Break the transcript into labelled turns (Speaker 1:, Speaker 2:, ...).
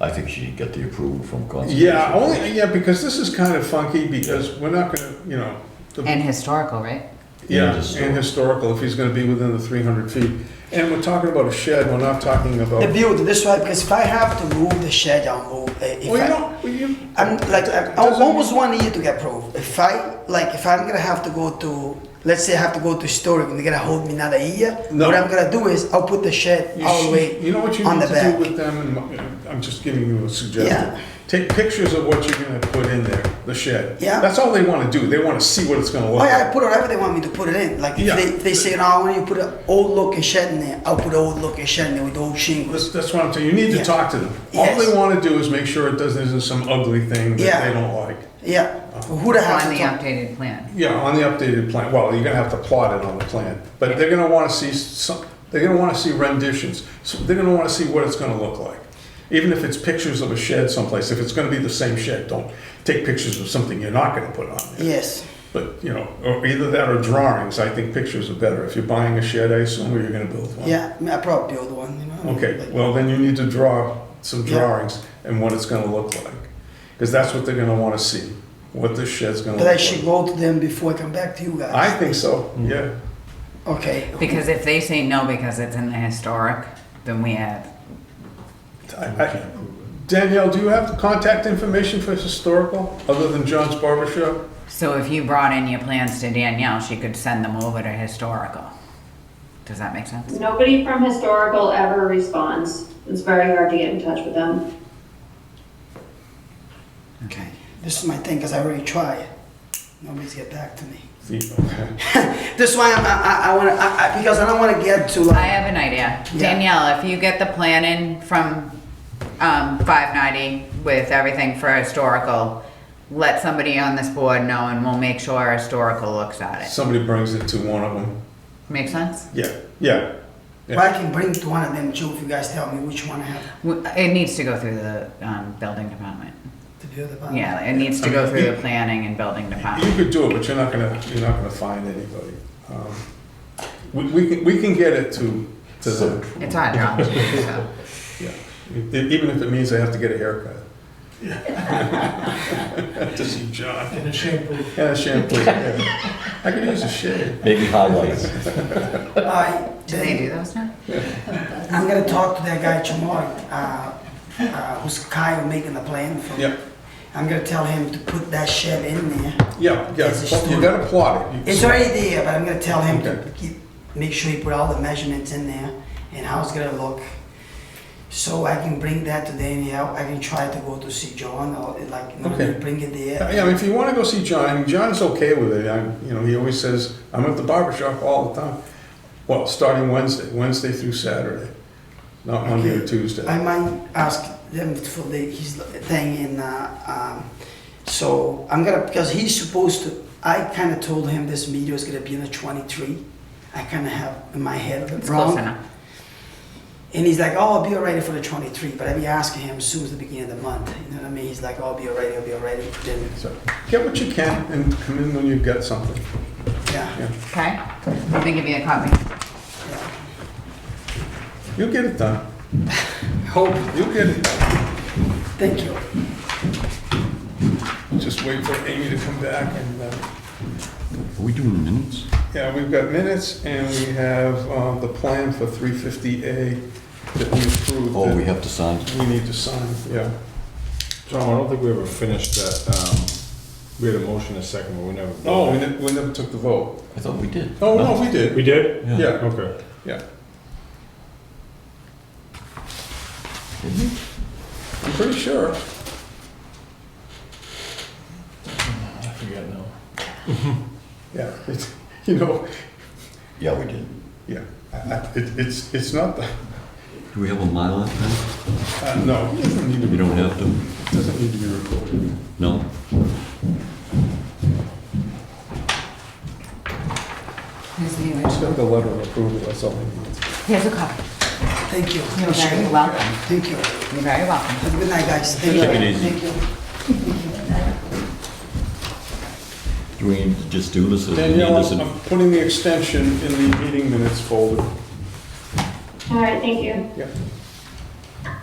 Speaker 1: I think she got the approval from conservation.
Speaker 2: Yeah, only, yeah, because this is kind of funky, because we're not gonna, you know, the-
Speaker 3: And historical, right?
Speaker 2: yeah,
Speaker 1: And historical.
Speaker 2: and historical, if he's gonna be within the three hundred feet. And we're talking about a shed, we're not talking about,
Speaker 4: The
Speaker 2: well,
Speaker 4: build this way because if I have to move the shed, I'll move. it. If
Speaker 2: you
Speaker 4: I-
Speaker 2: don't, well, you,
Speaker 4: I'm like I'm
Speaker 2: Doesn't-
Speaker 4: almost one year to get approved. If I like if I'm gonna have to go to let's say I have to go to storage and they're gonna hold me another year,
Speaker 2: No.
Speaker 4: what I'm gonna do is I'll put the shed
Speaker 2: you
Speaker 4: all the
Speaker 2: should,
Speaker 4: way
Speaker 2: you know what you
Speaker 4: on
Speaker 2: need
Speaker 4: the
Speaker 2: to do
Speaker 4: back.
Speaker 2: with them, and my- I'm just giving you a
Speaker 4: Yeah.
Speaker 2: suggestion. Take pictures of what you're gonna put in there, the shed.
Speaker 4: Yeah.
Speaker 2: That's all they wanna do, they wanna see what it's gonna look
Speaker 4: Oh yeah,
Speaker 2: like.
Speaker 4: I put whatever they want me to put it in. Like if
Speaker 2: Yeah.
Speaker 4: they, if they say no, I want you to put an old looking shed in there, I'll put an old looking shed in there with old shingles.
Speaker 2: That's, that's what I'm saying, you need to
Speaker 4: Yeah.
Speaker 2: talk to them. All
Speaker 4: Yes.
Speaker 2: they wanna do is make sure it doesn't, isn't some ugly thing that
Speaker 4: Yeah.
Speaker 2: they don't like.
Speaker 4: Yeah.
Speaker 2: Uh-huh.
Speaker 4: Who the hell
Speaker 3: On
Speaker 4: to
Speaker 3: the
Speaker 4: talk-
Speaker 3: updated plan.
Speaker 2: Yeah, on the updated plan, well, you're gonna have to plot it on the plan, but they're gonna wanna see some, they're gonna wanna see renditions, so they're gonna wanna see what it's gonna look like. Even if it's pictures of a shed someplace, if it's gonna be the same shed, don't take pictures of something you're not gonna put on there.
Speaker 4: Yes.
Speaker 2: But, you know, or either that or drawings, I think pictures are better, if you're buying a shed, I assume, or you're gonna build one.
Speaker 4: Yeah, I, mean, I probably build one. You know?
Speaker 2: Okay,
Speaker 4: Like-
Speaker 2: well, then you need to draw some
Speaker 4: Yeah.
Speaker 2: drawings and what it's gonna look like, cause that's what they're gonna wanna see, what this shed's gonna look
Speaker 4: But
Speaker 2: like.
Speaker 4: I should go to them before I come back to you guys.
Speaker 2: I think so, yeah.
Speaker 4: okay.
Speaker 3: Because if they say no because it's in the historic, then we have,
Speaker 2: I- I- Danielle, do you have the contact information for historical, other than John's Barber Shop?
Speaker 3: so if you brought in your plans to Danielle, she could send them over to historical. Does that make sense?
Speaker 5: Nobody from historical ever responds. It's very hard to get in touch with them.
Speaker 3: Okay.
Speaker 4: This is my thing because I already tried. Nobody's get back to me.
Speaker 2: The- okay.
Speaker 4: This is why I'm, I, I, I want to, I, I, because I don't want to get to
Speaker 3: I
Speaker 4: like,
Speaker 3: have an idea.
Speaker 4: Yeah.
Speaker 3: Danielle, if you get the plan in from um, 590 with everything for historical, let somebody on this board know and we'll make sure historical looks at it.
Speaker 2: Somebody brings it to one of them.
Speaker 3: Make sense?
Speaker 2: Yeah, yeah.
Speaker 4: Well, I can bring to one of them too if you guys tell me which one I have
Speaker 3: W- It needs to go through the um, building department.
Speaker 4: to build upon.
Speaker 3: Yeah, it needs to go through the planning and building
Speaker 2: You
Speaker 3: department.
Speaker 2: could do it, but you're not gonna, you're not gonna find anybody. Um, We, we can, we can get it to, to them,
Speaker 3: It's our job. so.
Speaker 2: yeah. E- Even if it means they have to get a haircut. To see John. And a shampoo. And a shampoo, yeah. I could use a shave.
Speaker 1: Maybe highlights.
Speaker 4: All right,
Speaker 3: Do they do those now?
Speaker 4: I'm gonna talk to that guy tomorrow, uh, uh, who's Kyle making the plan for.
Speaker 2: Yeah.
Speaker 4: I'm gonna tell him to put that shed in there.
Speaker 2: Yeah, yeah,
Speaker 4: It's a
Speaker 2: pl- you
Speaker 4: story.
Speaker 2: gotta plot it. You-
Speaker 4: It's already there, but I'm gonna tell him
Speaker 2: Okay.
Speaker 4: to keep, make sure he put all the measurements in there and how it's gonna look. So I can bring that to Danielle, I can try to go to see John or like, you know,
Speaker 2: Okay.
Speaker 4: bring it there.
Speaker 2: Yeah, I mean, if you wanna go see John, I mean, John's okay with it, I, you know, he always says, I'm at the barber shop all the time. Well, starting Wednesday, Wednesday through Saturday, not Monday or
Speaker 4: Okay.
Speaker 2: Tuesday.
Speaker 4: I might ask them for the, his thing in, uh, um, so I'm gonna, because he's supposed to, I kinda told him this meeting is gonna be in the twenty-three. I kinda have in my head
Speaker 3: It's close
Speaker 4: wrong.
Speaker 3: enough.
Speaker 4: And he's like, oh, I'll be all ready for the twenty-three, but I be asking him as soon as the beginning of the month, you know what I mean? He's like, oh, I'll be all ready, I'll be all ready, then,
Speaker 2: So, get what you can and come in when you've got something,
Speaker 4: yeah.
Speaker 2: yeah.
Speaker 3: Okay? Let me give you a copy.
Speaker 2: You'll get it done,
Speaker 4: Hope,
Speaker 2: you'll get it, done.
Speaker 4: thank you.
Speaker 2: just wait for Amy to come back and, uh,
Speaker 6: Are we doing minutes?
Speaker 2: yeah, we've got minutes and we have, uh, the plan for three fifty A that we approved.
Speaker 1: Oh, we
Speaker 2: that
Speaker 1: have to sign.
Speaker 2: We need to sign, yeah.
Speaker 7: Tom, I don't think we ever finished that, um, we had a motion a second, but we never.
Speaker 2: No, we never, we never took the vote.
Speaker 1: I thought we did.
Speaker 2: Oh, no, we did.
Speaker 7: We did?
Speaker 2: Yeah,
Speaker 7: Okay.
Speaker 2: yeah. Mm-hmm. I'm pretty sure.
Speaker 7: I forget now.
Speaker 2: Yeah, it's, you know,
Speaker 1: Yeah, we did.
Speaker 2: yeah, I- I- it, it's, it's not the,
Speaker 1: Do we have a mile pen?
Speaker 2: uh, no, it doesn't need to
Speaker 1: We
Speaker 2: be,
Speaker 1: don't have to,
Speaker 2: doesn't need to be recorded.
Speaker 1: no?
Speaker 3: Here's the new
Speaker 2: Just
Speaker 3: one.
Speaker 2: got the letter of approval, that's all I need.
Speaker 3: Here's a copy.
Speaker 4: Thank you.
Speaker 3: You're very welcome.
Speaker 4: Thank you.
Speaker 3: You're very welcome.
Speaker 4: Have a good night, guys. Thank you.
Speaker 1: Take it easy.
Speaker 4: Thank you.
Speaker 1: Do we need to just do this? or do we need
Speaker 2: Danielle,
Speaker 1: this
Speaker 2: I'm-
Speaker 1: in-
Speaker 2: I'm putting the extension in the meeting minutes folder.
Speaker 5: All right, thank you.
Speaker 2: Yeah.